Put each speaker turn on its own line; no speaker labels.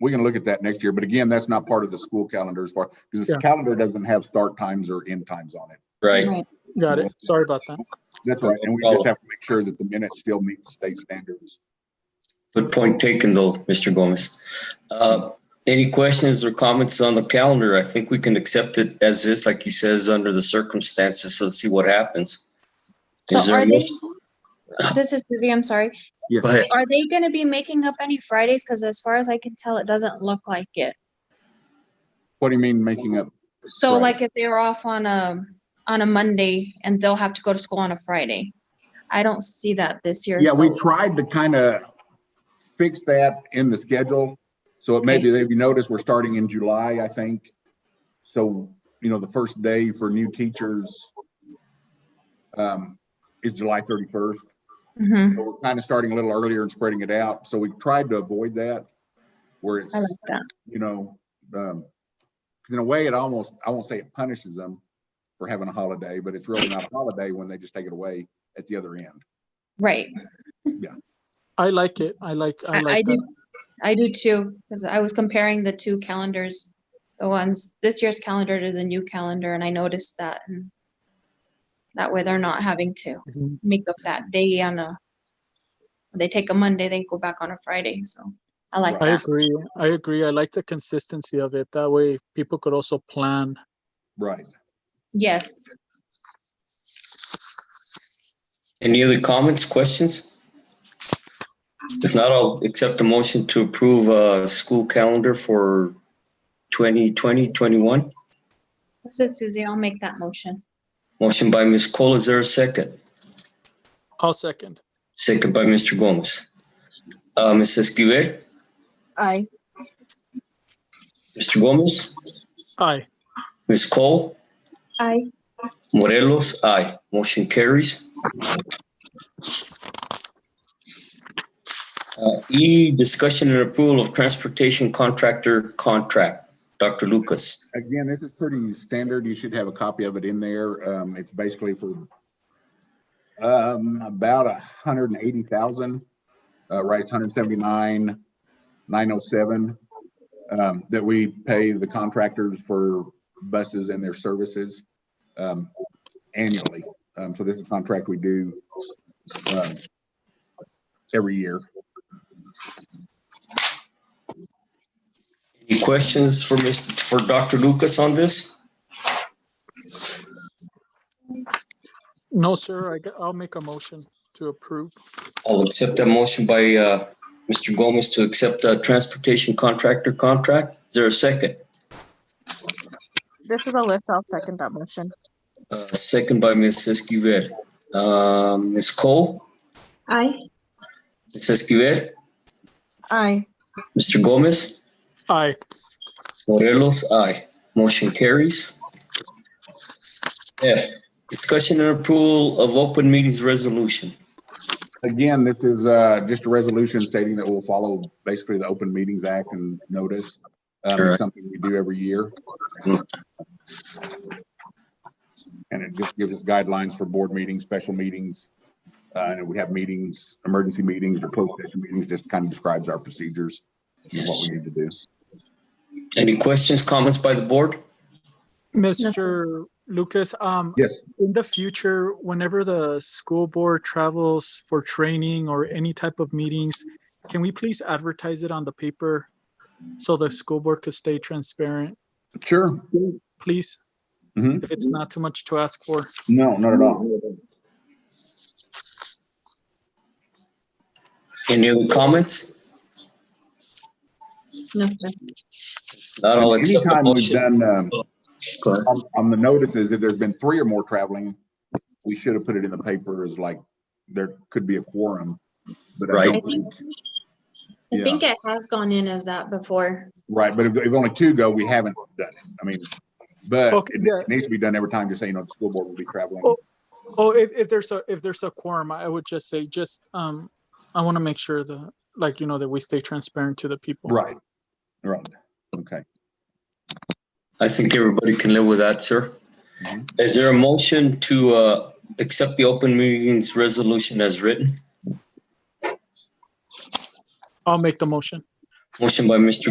we can look at that next year, but again, that's not part of the school calendar as far, because the
Yeah.
calendar doesn't have start times or end times on it.
Right.
Got it. Sorry about that.
That's right, and we just have to make sure that the minutes still meet the state standards.
Good point taken though, Mr. Gomez. Uh, Any questions or comments on the calendar? I think we can accept it as is, like he says, under the circumstances. Let's see what happens. Is
So
there
are
a
they,
motion?
this is Suzie, I'm sorry.
Go ahead.
Are they gonna be making up any Fridays? Cause as far as I can tell, it doesn't look like it.
What do you mean making up?
So
Right.
like if they were off on a, on a Monday and they'll have to go to school on a Friday. I don't see that this year.
Yeah, we
so-
tried to kind of fix that in the schedule. So it may be, if you notice, we're starting in July, I think. So, you know, the first day for new teachers um, is July 31st.
Mhm,
So we're kind of starting a little earlier and spreading it out. So we tried to avoid that where it's,
I like that.
you know, um, 'cause in a way it almost, I won't say it punishes them for having a holiday, but it's really not a holiday when they just take it away at the other end.
Right.
I like it. I like, I
I, I
like
do,
that.
I do too, because I was comparing the two calendars, the ones, this year's calendar to the new calendar, and I noticed that. and That way they're not having to
Mhm.
make up that day on a, they take a Monday, they go back on a Friday, so I like
I
that.
agree. I agree. I like the consistency of it. That way people could also plan.
Right.
Yes,
Any other comments, questions? If not, I'll accept a motion to approve a school calendar for 2020, 21.
this is Suzie, I'll make that motion.
Motion by Ms. Cole. Is there a second?
I'll second.
Second by Mr. Gomez. Uh, Ms. Esquivel,
Aye.
Mr. Gomez,
Aye.
Ms. Cole,
Aye.
Morelos, aye. Motion carries. Uh, E, discussion and approval of transportation contractor contract. Dr. Lucas.
Again, this is pretty standard. You should have a copy of it in there. Um, it's basically for um, about a hundred and eighty thousand, uh, right, it's hundred seventy-nine, nine oh seven, um, that we pay the contractors for buses and their services, um, annually. Um, so this is a contract we do, um, every year.
Any questions for Mr., for Dr. Lucas on this?
No, sir. I, g- I'll make a motion to approve.
I'll accept that motion by uh, Mr. Gomez to accept the transportation contractor contract. Is there a second?
This is Alyssa. I'll second that motion.
Uh, Second by Ms. Esquivel. Um, Ms. Cole,
Aye.
Ms. Esquivel,
Aye.
Mr. Gomez,
Aye.
Morelos, aye. Motion carries. F, discussion and approval of open meetings resolution.
Again, this is uh, just a resolution stating that we'll follow basically the Open Meetings Act and notice. Um,
Correct.
It's something we do every year. And it just gives us guidelines for board meetings, special meetings. uh, And if we have meetings, emergency meetings or closed session meetings, just kind of describes our procedures and what we need to do.
Any questions, comments by the board?
Mr. Lucas, um,
Yes,
in the future, whenever the school board travels for training or any type of meetings, can we please advertise it on the paper so the school board could stay transparent,
sure.
please?
Mhm.
If it's not too much to ask for.
No, not at all.
Any other comments?
No, sir.
Not all accept the
Anytime we've
motion.
done, um,
Go ahead.
on, on the notices, if there's been three or more traveling, we should have put it in the paper as like, there could be a quorum. but I don't
Right. I think-
think-
I
Yeah.
think it has gone in as that before.
Right, but if, if only two go, we haven't done it. I mean, but
Okay,
it
yeah.
it needs to be done every time, just say, you know, the school board will be traveling.
Oh. Oh, if, if there's a, if there's a quorum, I would just say, just, um, I want to make sure the, like, you know, that we stay transparent to the people.
Right, right, okay.
I think everybody can live with that, sir.
Mhm.
Is there a motion to uh, accept the open meetings resolution as written?
I'll make the motion.
Motion by Mr.